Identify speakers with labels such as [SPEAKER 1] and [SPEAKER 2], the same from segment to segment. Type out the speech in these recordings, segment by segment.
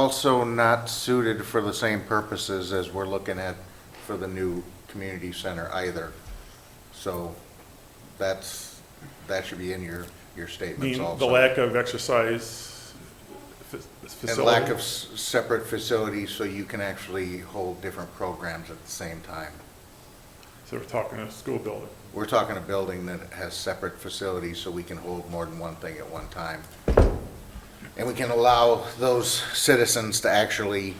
[SPEAKER 1] also not suited for the same purposes as we're looking at for the new community center either. So that's, that should be in your, your statements
[SPEAKER 2] The, the
[SPEAKER 1] also.
[SPEAKER 2] lack of exercise fa- facility.
[SPEAKER 1] And lack of s- separate facilities so you can actually hold different programs at the same time.
[SPEAKER 2] So we're talking a school building.
[SPEAKER 1] We're talking a building that has separate facilities so we can hold more than one thing at one time. And we can allow those citizens to actually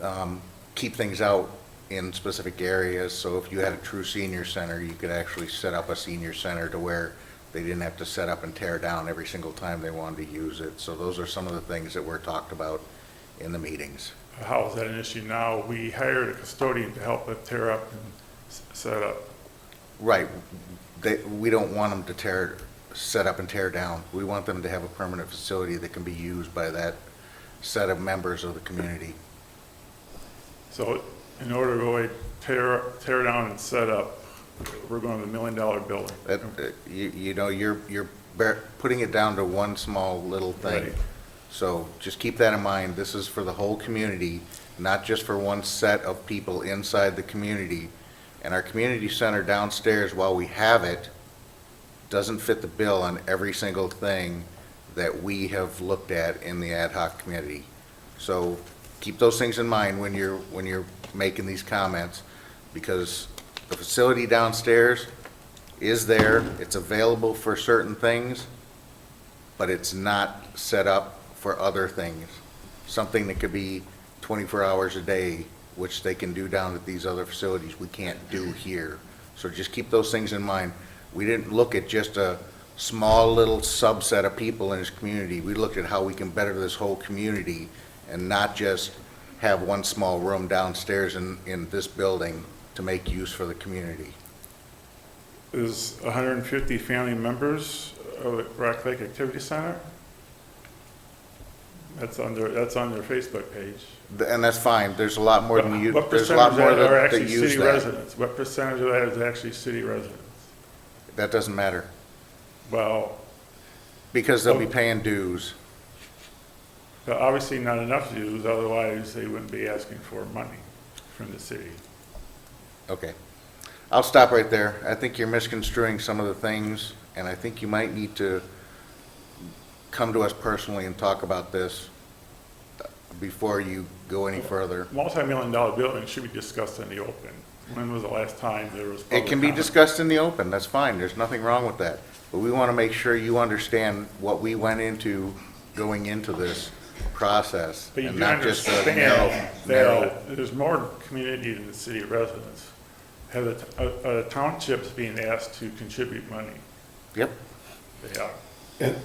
[SPEAKER 1] um, keep things out in specific areas. So if you had a true senior center, you could actually set up a senior center to where they didn't have to set up and tear down every single time they wanted to use it. So those are some of the things that were talked about in the meetings.
[SPEAKER 2] How is that an issue now? We hired a custodian to help us tear up and s- set up.
[SPEAKER 1] Right. They, we don't want them to tear, set up and tear down. We want them to have a permanent facility that can be used by that set of members of the community.
[SPEAKER 2] So in order to avoid tear, tear down and set up, we're going to the million dollar building.
[SPEAKER 1] That, that- you, you know, you're, you're bar- putting it down to one small little thing.
[SPEAKER 2] Right.
[SPEAKER 1] So just keep that in mind. This is for the whole community, not just for one set of people inside the community. And our community center downstairs, while we have it, doesn't fit the bill on every single thing that we have looked at in the ad hoc committee. So keep those things in mind when you're, when you're making these comments, because the facility downstairs is there, it's available for certain things, but it's not set up for other things. Something that could be 24 hours a day, which they can do down at these other facilities, we can't do here. So just keep those things in mind. We didn't look at just a small little subset of people in this community. We looked at how we can better this whole community and not just have one small room downstairs in, in this building to make use for the community.
[SPEAKER 2] There's 150 family members of the Rock Lake Activity Center. That's on their, that's on their Facebook page.
[SPEAKER 1] Th- And that's fine, there's a lot more than you,
[SPEAKER 2] What
[SPEAKER 1] there's a
[SPEAKER 2] percentage
[SPEAKER 1] lot
[SPEAKER 2] of
[SPEAKER 1] more
[SPEAKER 2] that are
[SPEAKER 1] that that
[SPEAKER 2] actually
[SPEAKER 1] use
[SPEAKER 2] city
[SPEAKER 1] that.
[SPEAKER 2] residents? What percentage of that is actually city residents?
[SPEAKER 1] That doesn't matter,
[SPEAKER 2] Well,
[SPEAKER 1] because
[SPEAKER 2] Oh.
[SPEAKER 1] they'll be paying dues.
[SPEAKER 2] But obviously not enough dues, otherwise they wouldn't be asking for money from the city.
[SPEAKER 1] Okay. I'll stop right there. I think you're misconstruing some of the things, and I think you might need to come to us personally and talk about this before you go any further.
[SPEAKER 2] Multi-million dollar buildings should be discussed in the open. When was the last time there was public
[SPEAKER 1] It can be
[SPEAKER 2] comment?
[SPEAKER 1] discussed in the open, that's fine, there's nothing wrong with that. But we want to make sure you understand what we went into going into this process.
[SPEAKER 2] But you
[SPEAKER 1] and
[SPEAKER 2] do
[SPEAKER 1] not just a
[SPEAKER 2] understand
[SPEAKER 1] narrow- narrow-
[SPEAKER 2] that there's more community than the city residents. Have the, t- uh, uh, townships being asked to contribute money?
[SPEAKER 1] Yep.
[SPEAKER 2] They are.
[SPEAKER 3] And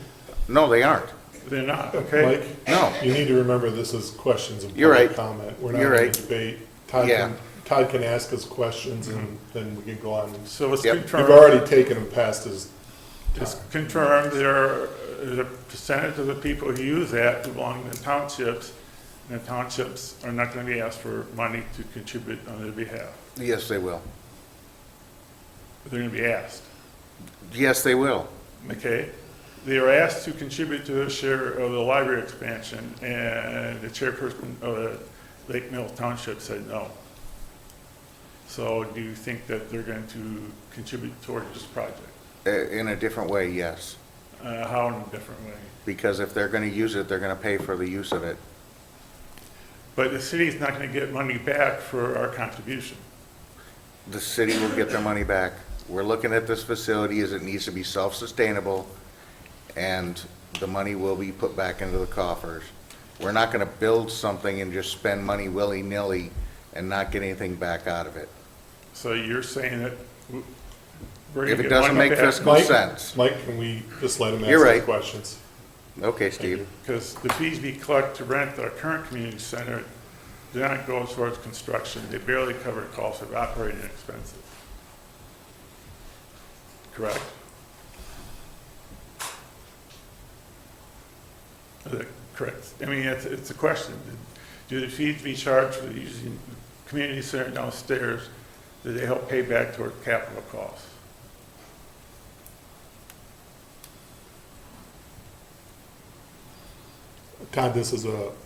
[SPEAKER 1] No, they aren't.
[SPEAKER 2] They're not,
[SPEAKER 3] Mike,
[SPEAKER 2] okay?
[SPEAKER 1] No.
[SPEAKER 3] you need to remember this is questions and
[SPEAKER 1] You're
[SPEAKER 3] public
[SPEAKER 1] right.
[SPEAKER 3] comment. We're not
[SPEAKER 1] You're
[SPEAKER 3] in a
[SPEAKER 1] right.
[SPEAKER 3] debate. Todd
[SPEAKER 1] Yeah.
[SPEAKER 3] can, Todd can ask us questions and then we can go on.
[SPEAKER 2] So let's
[SPEAKER 1] Yep.
[SPEAKER 2] confirm.
[SPEAKER 3] You've already taken him past his,
[SPEAKER 1] Uh,
[SPEAKER 2] It's confirmed there, uh, the percentage of the people who use that belong to townships, and the townships are not gonna be asked for money to contribute on their behalf.
[SPEAKER 1] Yes, they will.
[SPEAKER 2] They're gonna be asked,
[SPEAKER 1] Yes, they will.
[SPEAKER 2] okay? They are asked to contribute to their share of the library expansion, and the chairperson of the Lake Mills Township said no. So do you think that they're going to contribute towards this project?
[SPEAKER 1] Uh, In a different way, yes.
[SPEAKER 2] Uh, how in a different way?
[SPEAKER 1] Because if they're going to use it, they're going to pay for the use of it.
[SPEAKER 2] But the city's not gonna get money back for our contribution.
[SPEAKER 1] The city will get their money back. We're looking at this facility as it needs to be self-sustainable, and the money will be put back into the coffers. We're not going to build something and just spend money willy-nilly and not get anything back out of it.
[SPEAKER 2] So you're saying that w- we're
[SPEAKER 1] If
[SPEAKER 2] gonna
[SPEAKER 1] it
[SPEAKER 2] get
[SPEAKER 1] doesn't
[SPEAKER 2] money
[SPEAKER 1] make
[SPEAKER 2] back?
[SPEAKER 1] fiscal
[SPEAKER 3] Mike,
[SPEAKER 1] sense.
[SPEAKER 3] Mike, can we just let him
[SPEAKER 1] You're
[SPEAKER 3] ask
[SPEAKER 1] right.
[SPEAKER 3] his questions?
[SPEAKER 1] Okay, Steve?
[SPEAKER 2] Because the fees we collect to rent our current community center, do not go towards construction. They barely cover costs of operating expenses. Correct? Is that Correct. I mean, it's, it's a question. Do the fees we charge for using the community center downstairs, do they help pay back toward capital costs?
[SPEAKER 3] Todd, this is a